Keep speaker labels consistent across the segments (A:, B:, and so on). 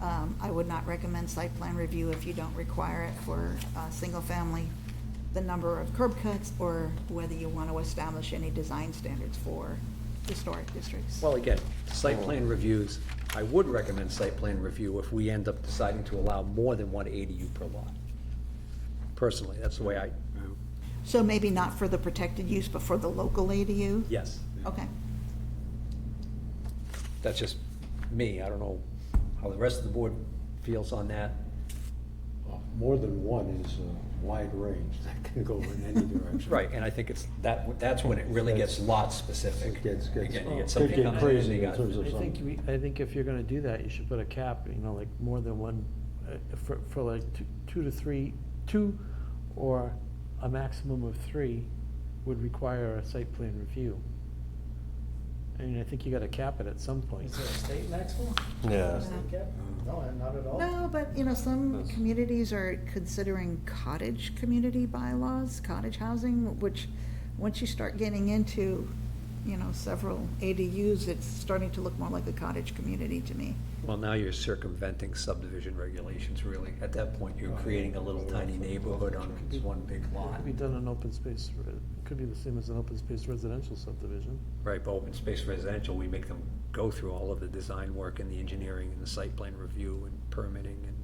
A: Um, I would not recommend site plan review if you don't require it for, uh, single family, the number of curb cuts, or whether you want to establish any design standards for historic districts.
B: Well, again, site plan reviews, I would recommend site plan review if we end up deciding to allow more than one ADU per lot. Personally, that's the way I,
A: So maybe not for the protected use, but for the local ADU?
B: yes,
A: Okay,
B: that's just me, I don't know how the rest of the board feels on that.
C: Uh, More than one is a wide range that can go in any direction.
B: Right, and I think it's, that, that's when it really gets lot specific.
C: It gets, gets,
B: Again, you get
C: could
B: something
C: get
B: coming in, you
C: crazy in
B: got-
C: terms of
D: I think,
C: some.
D: we- I think if you're gonna do that, you should put a cap, you know, like more than one, uh, for, for like two- two to three, two or a maximum of three would require a site plan review. I mean, I think you gotta cap it at some point.
E: Is there a state maximum?
C: Yeah.
E: Is there a state cap? No, not at all.
A: no, but, you know, some communities are considering cottage community bylaws, cottage housing, which, once you start getting into, you know, several ADUs, it's starting to look more like a cottage community to me.
B: Well, now you're circumventing subdivision regulations, really. At that point, you're creating a little tiny neighborhood on one big
D: It
B: lot.
D: could be done in open space, re- it could be the same as an open space residential subdivision.
B: Right, but open space residential, we make them go through all of the design work and the engineering and the site plan review and permitting and,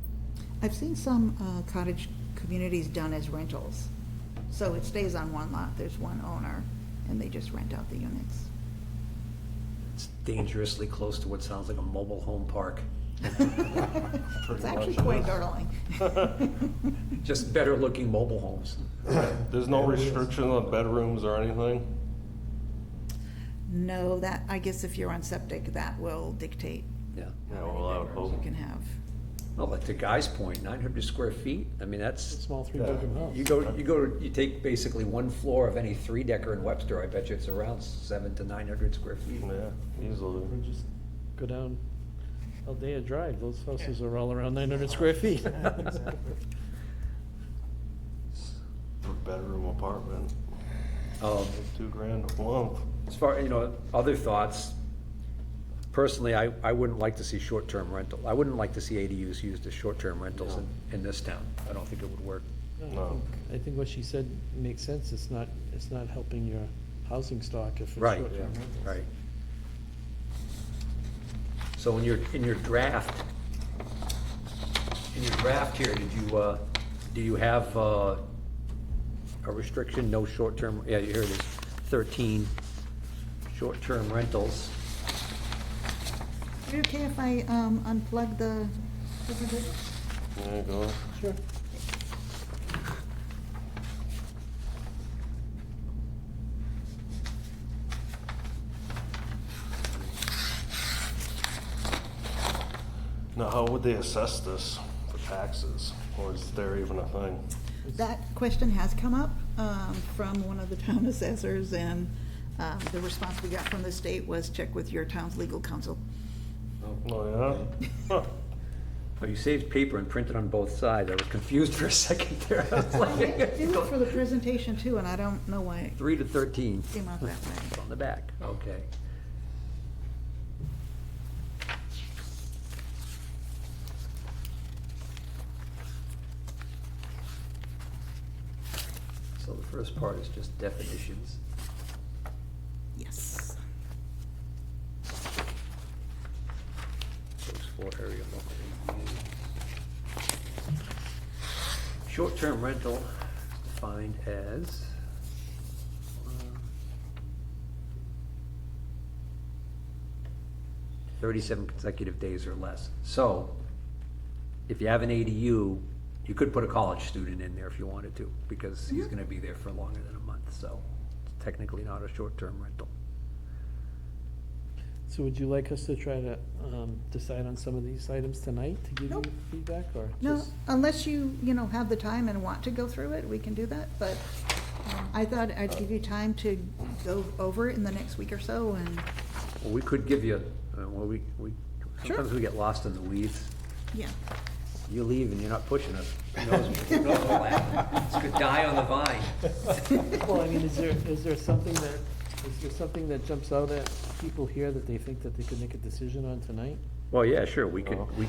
A: I've seen some uh, cottage communities done as rentals. So it stays on one lot, there's one owner, and they just rent out the units.
B: it's dangerously close to what sounds like a mobile home park.
A: It's actually quite darling.
B: Just better looking mobile homes.
F: There's no restriction on bedrooms or anything?
A: No, that, I guess if you're on septic, that will dictate
B: Yeah.
F: Yeah,
A: how
F: well, I
A: many
F: would
A: bedrooms you
F: hope.
A: can have.
B: Well, like to Guy's point, nine hundred square feet, I mean,
D: It's a
B: that's,
D: small three-bedroom house.
B: you go, you go, you take basically one floor of any three decker in Webster, I bet you it's around seven to nine hundred square feet.
F: Yeah, easily.
D: Or just go down Aldea Drive, those houses are all around nine hundred square feet.
E: Exactly.
F: For bedroom apartment,
B: Um,
F: two grand a month.
B: As far, you know, other thoughts, personally, I, I wouldn't like to see short-term rental. I wouldn't like to see ADUs used as short-term rentals in, in this town. I don't think it would work.
F: No.
D: I think what she said makes sense, it's not, it's not helping your housing stock if it's
B: Right,
D: short-term
B: yeah,
D: rentals.
B: right. So in your, in your draft, in your draft here, did you, uh, do you have, uh, a restriction, no short-term, yeah, here it is, thirteen, short-term rentals.
A: Is it okay if I um, unplug the,
F: There you go.
D: Sure.
F: Now, how would they assess this for taxes? Or is there even a thing?
A: that question has come up um, from one of the town assessors, and um, the response we got from the state was check with your town's legal counsel.
F: Oh, yeah? Huh.
B: Oh, you saved paper and printed on both sides. I was confused for a second there. I was
A: They do it for the
B: like,
A: presentation too, and I don't know why it
B: Three to thirteen
A: came out that way.
B: on the back, okay. So the first part is just definitions.
A: Yes.
B: Those four area local ADU. Short-term rental is defined as. Thirty-seven consecutive days or less. So, if you have an ADU, you could put a college student in there if you wanted to, because he's gonna be there for longer than a month, so it's technically not a short-term rental.
D: So would you like us to try to um, decide on some of these items tonight to give you
A: Nope.
D: feedback, or
A: No, uh,
D: just?
A: unless you, you know, have the time and want to go through it, we can do that, but um, I thought I'd give you time to go over it in the next week or so, and,
B: Well, we could give you, uh, well, we, we,
A: Sure.
B: sometimes we get lost in the weeds.
A: yeah.
B: You leave and you're not pushing us. Who knows- who knows what'll happen? It's gonna die on the vine.
D: Well, I mean, is there, is there something that, is there something that jumps out at people here that they think that they could make a decision on tonight?
B: Well, yeah, sure, we could, we